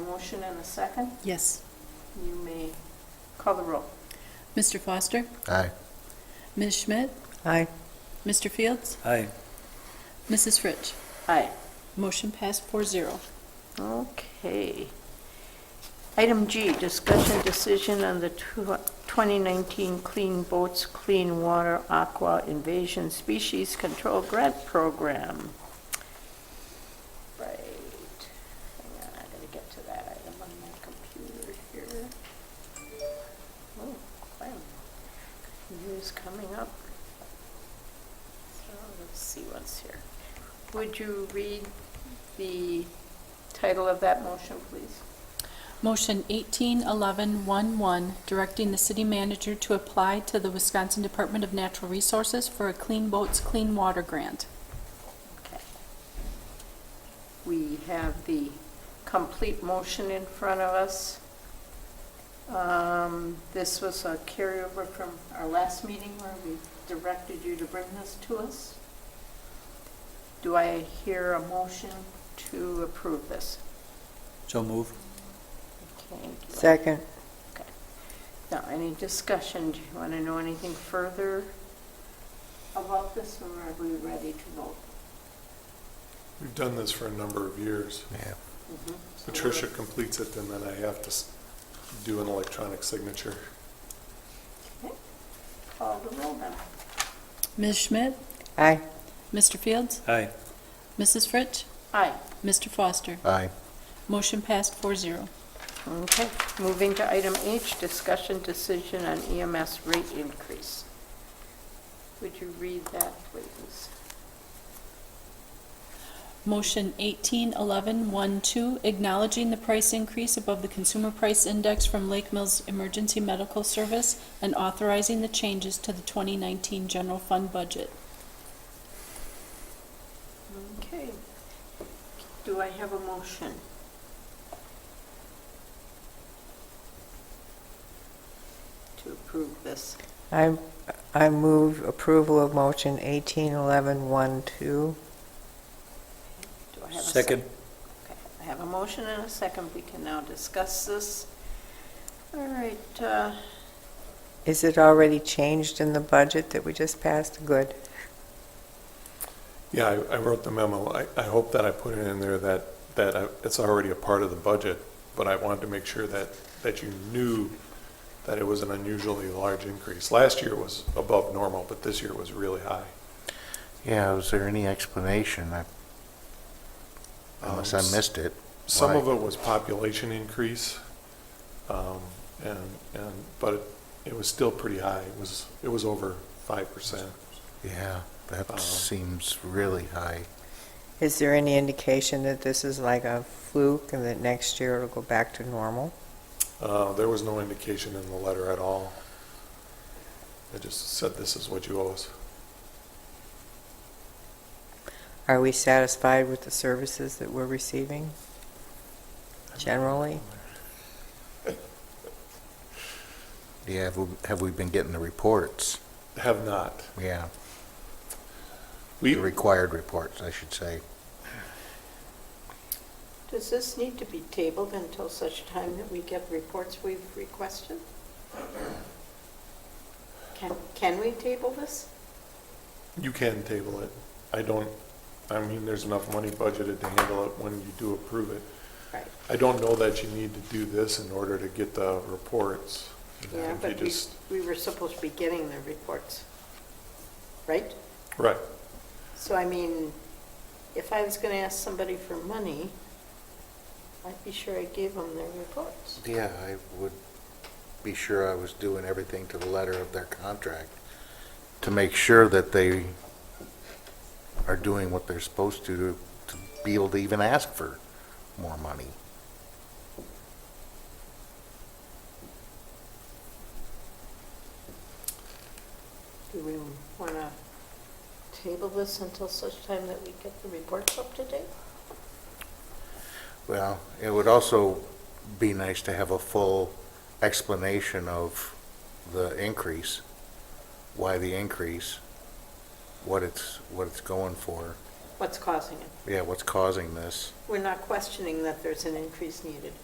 motion and a second. Yes. You may call the roll. Mr. Foster? Aye. Ms. Schmidt? Aye. Mr. Fields? Aye. Mrs. Fritsch? Aye. Motion passed four zero. Okay. Item G, discussion decision on the tw- 2019 Clean Boats, Clean Water Aqua Invasion Species Control Grant Program. Right. Hang on, I gotta get to that item on my computer here. Oh, wow. News coming up. So let's see what's here. Would you read the title of that motion, please? Motion 181111, directing the city manager to apply to the Wisconsin Department of Natural Resources for a Clean Boats, Clean Water Grant. Okay. We have the complete motion in front of us. Um, This was a carryover from our last meeting where we directed you to bring this to us. Do I hear a motion to approve this? So move. Okay. do I- Second. Okay. Now, any discussion? Do you want to know anything further about this, or are we ready to vote? We've done this for a number of years. Yeah. Patricia completes it, and then I have to s- do an electronic signature. Okay. Call the roll then. Ms. Schmidt? Aye. Mr. Fields? Aye. Mrs. Fritsch? Aye. Mr. Foster? Aye. Motion passed four zero. Okay, moving to item H, discussion decision on EMS rate increase. Would you read that, please? Motion 181112, acknowledging the price increase above the Consumer Price Index from Lake Mills Emergency Medical Service and authorizing the changes to the 2019 general fund budget. Okay. Do I have a motion? To approve this. I, I move approval of motion 181112. Do I have a sec- Second. Okay, I have a motion and a second. We can now discuss this. All right, uh, Is it already changed in the budget that we just passed? Good. Yeah, I, I wrote the memo. I, I hope that I put it in there that, that I- it's already a part of the budget, but I wanted to make sure that, that you knew that it was an unusually large increase. Last year was above normal, but this year was really high. Yeah, was there any explanation? I- Um, Unless I s- missed it. Some Why? of it was population increase, um, and, and, but it was still pretty high. It was, it was over 5%. Yeah, Um, that seems really high. Is there any indication that this is like a fluke and that next year it'll go back to normal? Uh, There was no indication in the letter at all. It just said, this is what you owe us. Are we satisfied with the services that we're receiving generally? Yeah, have we- have we been getting the reports? Have not. Yeah, We, the required reports, I should say. does this need to be tabled until such time that we get reports we've requested? Can, can we table this? you can table it. I don't, I mean, there's enough money budgeted to handle it when you do approve it. Right. I don't know that you need to do this in order to get the reports. I Yeah, think you but we, just- we were supposed to be getting the reports, right? Right. So I mean, if I was going to ask somebody for money, I'd be sure I gave them their reports. Yeah, I would be sure I was doing everything to the letter of their contract to make sure that they are doing what they're supposed to to to be able to even ask for more money. Do we want to table this until such time that we get the reports up to date? Well, it would also be nice to have a full explanation of the increase, why the increase, what it's, what it's going for, What's causing it? yeah, what's causing this. We're not questioning that there's an increase needed.